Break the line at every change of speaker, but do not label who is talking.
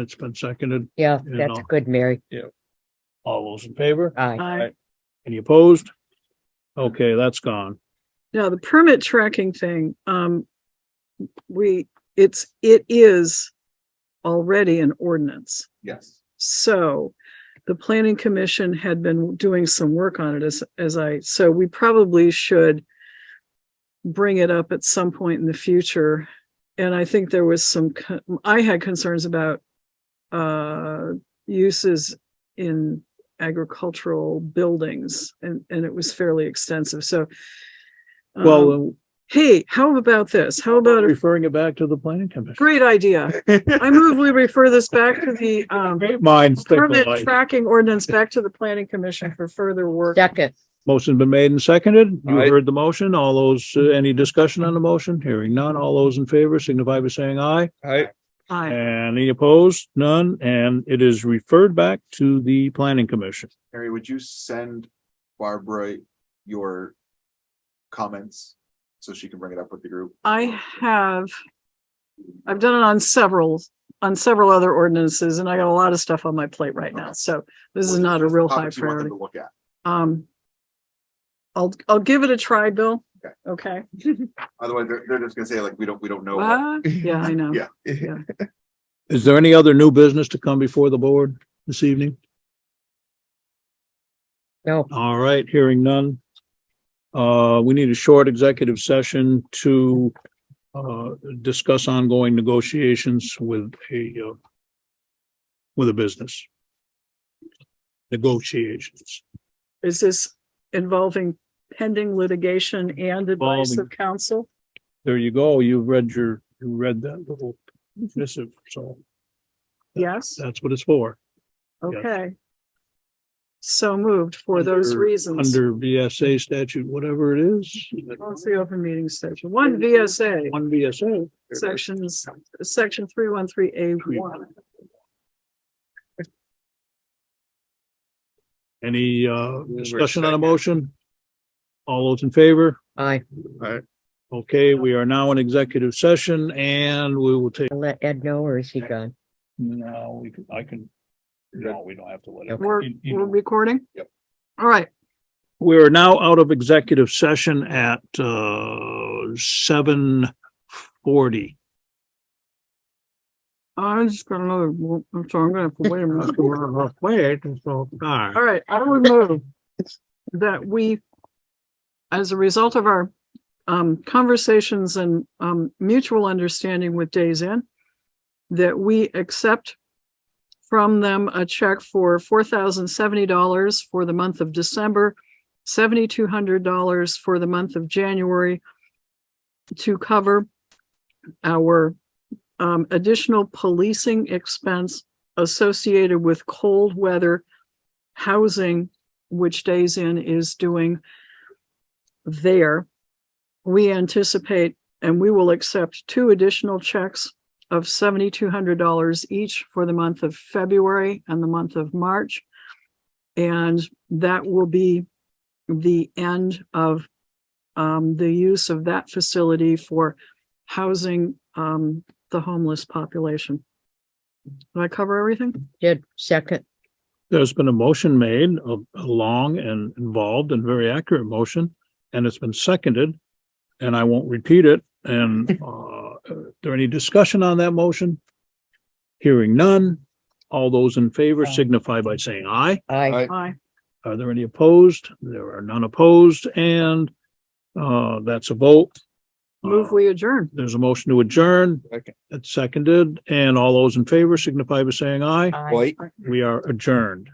It's been seconded.
Yeah,
You
that's
know.
good, Mary.
All those in favor?
Aye.
Aye.
Any opposed? Okay, that's gone.
Now, the permit tracking thing, um, we, it's, it is already an ordinance.
Yes.
So the planning commission had been doing some work on it as, as I, so we probably should bring it up at some point in the future. And I think there was some, co- I had concerns about uh, uses in agricultural buildings and, and it was fairly extensive. So um,
Well,
Hey, how about this? How
uh,
about a
referring it back to the planning commission.
great idea? I move we refer this back to the um
Great minds think
permit
alike.
tracking ordinance back to the planning commission for further work.
Second,
Motion's been made and seconded. You
Aye.
heard the motion. All those, uh, any discussion on the motion? Hearing none. All those in favor signify by saying aye.
I,
Aye.
And any opposed? None. And it is referred back to the planning commission.
Harry, would you send Barbara your comments so she can bring it up with the group?
I have, I've done it on several, on several other ordinances and I got a lot of stuff on my plate right now. So this is not a real high
Topics you want them
priority.
to Look at.
Um, I'll, I'll give it a try, Bill.
Okay.
Okay.
Otherwise, they're, they're just gonna say like, we don't, we don't know. what-
What? Yeah, I know.
Yeah.
Is there any other new business to come before the board this evening?
no,
All right, hearing none. Uh, we need a short executive session to uh, discuss ongoing negotiations with a uh, with a business. Negotiations.
Is this involving pending litigation and advice of counsel?
There you go. You've read your, you read that little missive, so
Yes,
that's what it's for.
okay. So moved for those
Under-
reasons.
Under VSA statute, whatever it is.
What's the open meeting section? One VSA,
One VSA.
sections, section three one three A one.
Any uh
We're
discussion on a
second.
motion? All those in favor?
aye.
Okay, we are now in executive session and we will take,
I'll Let Ed know, or is he gone?
no, we can, I can. No, we don't have to let it.
We're,
You- you
we're
know.
recording?
Yep.
All right,
We are now out of executive session at uh seven forty.
I'm just gonna move, I'm sorry, I'm gonna have to wait a minute.
Wait, so,
All right, I would move that we, as a result of our um, conversations and um, mutual understanding with Days In, that we accept from them a check for four thousand seventy dollars for the month of December, seventy-two hundred dollars for the month of January to cover our um, additional policing expense associated with cold weather housing, which Days Inn is doing there. We anticipate and we will accept two additional checks of seventy-two hundred dollars each for the month of February and the month of March. And that will be the end of um, the use of that facility for housing um, the homeless population. Did I cover everything?
Did, second,
There's been a motion made, a, a long and involved and very accurate motion, and it's been seconded. And I won't repeat it. And, uh, is there any discussion on that motion? Hearing none. All those in favor signify by saying aye.
aye.
Aye.
Aye.
Are there any opposed? There are none opposed and, uh, that's a vote.
Move
Uh,
we adjourn.
There's a motion to adjourn.
Second.
It's seconded and all those in favor signify by saying aye.
Aye.
White.
We are adjourned.